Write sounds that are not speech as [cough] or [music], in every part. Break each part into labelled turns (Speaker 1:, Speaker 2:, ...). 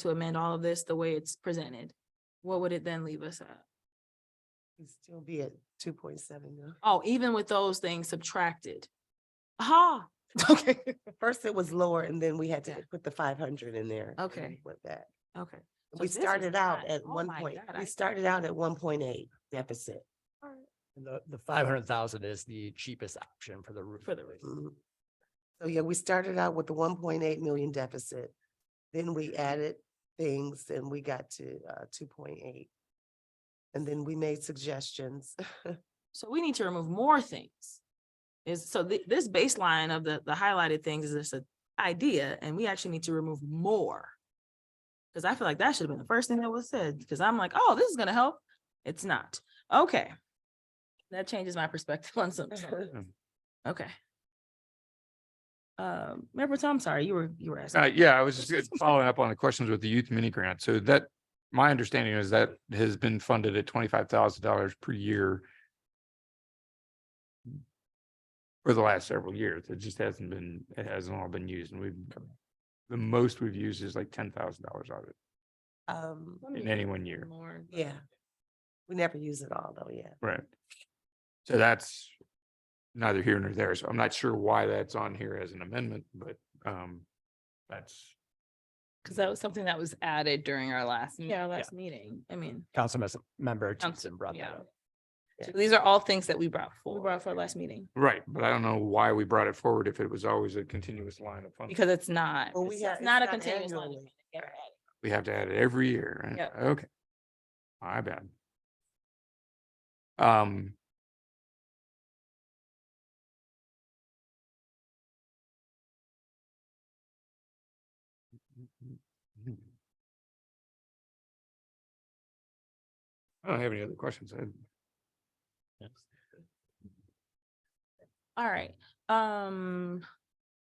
Speaker 1: to amend all of this the way it's presented, what would it then leave us at?
Speaker 2: It'd still be at two point seven now.
Speaker 1: Oh, even with those things subtracted. Ah! [laughs] Aha,
Speaker 2: Okay. First it was lower and then we had to put the five hundred in there. and
Speaker 1: Okay.
Speaker 2: With that.
Speaker 1: okay. So
Speaker 2: We
Speaker 1: this is
Speaker 2: started out
Speaker 1: not-
Speaker 2: at
Speaker 1: oh
Speaker 2: one
Speaker 1: my
Speaker 2: point,
Speaker 1: God, I-
Speaker 2: we started out at one point eight deficit.
Speaker 3: And The, the five hundred thousand is the cheapest option for the roof.
Speaker 1: For the roof.
Speaker 2: Mhm. So yeah, we started out with the one point eight million deficit. Then
Speaker 1: Mm-hmm.
Speaker 2: we added things and we got to uh two point eight. And then we made suggestions.
Speaker 1: So we need to remove more things. Is, so thi- this baseline of the, the highlighted things is just an idea and we actually need to remove more. Cause I feel like that should have been the first thing that was said, cause I'm like, oh, this is gonna help. It's not. Okay. That changes my perspective [laughs] on some.
Speaker 2: Uh-huh.
Speaker 1: Okay. Um, Mayor Protem, I'm sorry, you were, you were
Speaker 4: Uh,
Speaker 1: asking.
Speaker 4: yeah, I was just gonna- following up on the questions with the youth mini grant. So that, my understanding is that has been funded at twenty-five thousand dollars per year for the last several years. It just hasn't been, it hasn't all been used and we've, the most we've used is like ten thousand dollars of it
Speaker 2: [laughs] Um,
Speaker 1: [laughs] Let me
Speaker 4: in
Speaker 1: get
Speaker 4: any one year.
Speaker 1: more, but-
Speaker 2: yeah. We never use it all though, yeah.
Speaker 4: Right. So that's neither here nor there. So I'm not sure why that's on here as an amendment, but, um, that's
Speaker 5: Because that was something that was added during our last. meet-
Speaker 1: Yeah, our last meeting, I mean,
Speaker 3: Council mes- member
Speaker 5: Council-
Speaker 3: Thompson brought that
Speaker 5: yeah.
Speaker 3: up.
Speaker 5: So These are all things that we brought
Speaker 1: we
Speaker 5: forward
Speaker 1: brought it for our last meeting.
Speaker 4: Right, but I don't know why we brought it forward if it was always a continuous line of funding.
Speaker 5: because it's not.
Speaker 2: Well, we
Speaker 5: it's-
Speaker 2: have-
Speaker 1: It's
Speaker 2: it's
Speaker 1: not a
Speaker 2: not
Speaker 1: continuous line. of
Speaker 2: annually.
Speaker 1: funding.
Speaker 4: We have to add it every year. right?
Speaker 5: Yep.
Speaker 4: Okay. My bad. Um. I don't have any other questions. I-
Speaker 1: All right, um,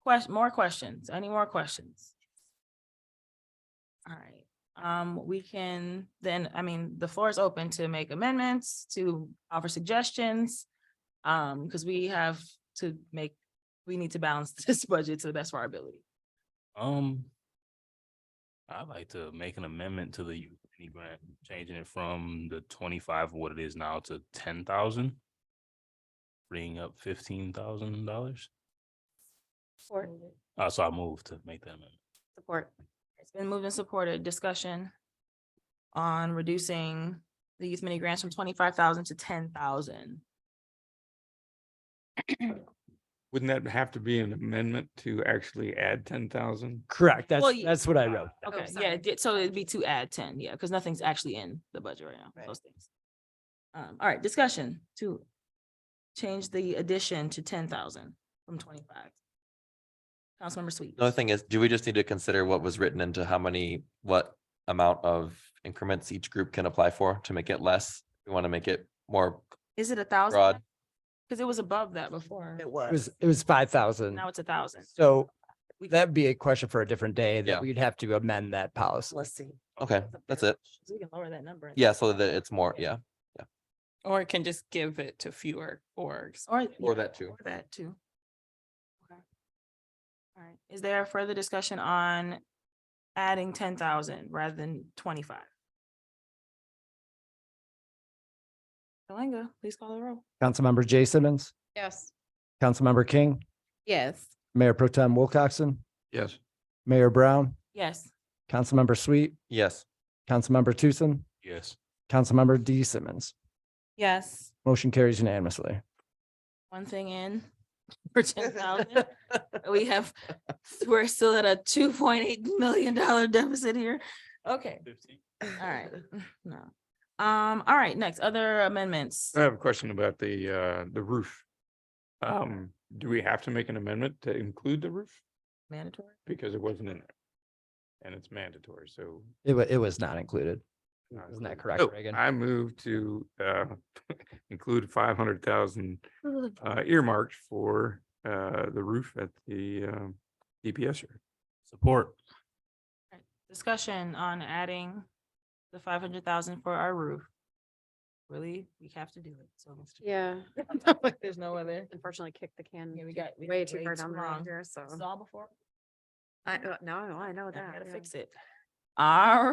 Speaker 1: question, more questions, any more questions? All right, um, we can then, I mean, the floor is open to make amendments, to offer suggestions. Um, because we have to make, we need to balance [laughs] this budget to the best of our ability.
Speaker 6: Um, I'd like to make an amendment to the youth mini grant, changing it from the twenty-five, what it is now to ten thousand. Freeing up fifteen thousand dollars.
Speaker 1: Support.
Speaker 6: Uh, so I moved to make that amendment.
Speaker 1: Support. It's been moved and supported, discussion on reducing the youth mini grants from twenty-five thousand to ten thousand.
Speaker 4: Wouldn't that have to be an amendment to actually add ten thousand?
Speaker 3: Correct.
Speaker 1: Well, uh,
Speaker 3: That's,
Speaker 1: ye-
Speaker 3: that's what I wrote.
Speaker 6: Oh,
Speaker 1: Okay, yeah,
Speaker 5: sorry.
Speaker 1: it did- so it'd be to add ten, yeah, because nothing's actually in the budget right now,
Speaker 2: Right.
Speaker 1: those things. Um, all right, discussion to change the addition to ten thousand from twenty-five. Councilmember Sweet.
Speaker 7: Another thing is, do we just need to consider what was written into how many, what amount of increments each group can apply for to make it less? We want to make it more
Speaker 1: Is it a thousand?
Speaker 7: broad.
Speaker 1: Because it was above that before,
Speaker 2: It
Speaker 3: It
Speaker 2: was.
Speaker 3: was, it was five thousand.
Speaker 1: now it's a thousand.
Speaker 3: So that'd be a question for a different day
Speaker 7: Yeah.
Speaker 3: that we'd have to amend that policy.
Speaker 2: Let's see.
Speaker 7: Okay, that's it.
Speaker 1: We can lower that number.
Speaker 7: Yeah, so that it's more, yeah.
Speaker 5: Or it can just give it to fewer orgs.
Speaker 1: Or.
Speaker 7: Or
Speaker 1: yeah,
Speaker 7: that too.
Speaker 1: Or that too. Okay. All right, is there further discussion on adding ten thousand rather than twenty-five? Kalanga, please call the roll.
Speaker 3: Councilmember Jay Simmons,
Speaker 5: Yes.
Speaker 3: Councilmember King,
Speaker 5: Yes.
Speaker 3: Mayor Pro Tem Wilcoxen,
Speaker 4: Yes.
Speaker 3: Mayor Brown,
Speaker 1: Yes,
Speaker 3: Councilmember Sweet,
Speaker 7: Yes,
Speaker 3: Councilmember Tucson,
Speaker 6: Yes,
Speaker 3: Councilmember D Simmons.
Speaker 5: Yes.
Speaker 3: Motion carries unanimously.
Speaker 1: one thing in for ten thousand. We
Speaker 7: [laughs]
Speaker 1: have, we're still at a two point eight million dollar deficit here. Okay, all right,
Speaker 7: [laughs]
Speaker 1: no. Um, all right, next, other amendments.
Speaker 4: I have a question about the, uh, the roof. Um, do we have to make an amendment to include the roof?
Speaker 1: Mandatory?
Speaker 4: Because it wasn't in there. And it's mandatory, so.
Speaker 3: It wa- it was not included.
Speaker 4: not
Speaker 3: Isn't that
Speaker 4: included.
Speaker 3: correct,
Speaker 4: So,
Speaker 3: Reagan?
Speaker 4: I move to, uh, [laughs] include five hundred thousand, uh, earmarked for, uh, the roof at the, um, DPS. yard.
Speaker 6: support.
Speaker 1: discussion on adding the five hundred thousand for our roof. Really, we have to do it, so. let's do it.
Speaker 8: Yeah,
Speaker 1: [laughs] There's
Speaker 8: [laughs]
Speaker 1: no other.
Speaker 8: unfortunately kicked the can
Speaker 1: Yeah, we got. we
Speaker 8: way
Speaker 1: got
Speaker 8: too hard on the
Speaker 1: wrong.
Speaker 8: here, so.
Speaker 1: Saw before,
Speaker 8: I, uh, no, I know
Speaker 1: I
Speaker 8: that.
Speaker 1: gotta
Speaker 8: yeah.
Speaker 1: fix it. All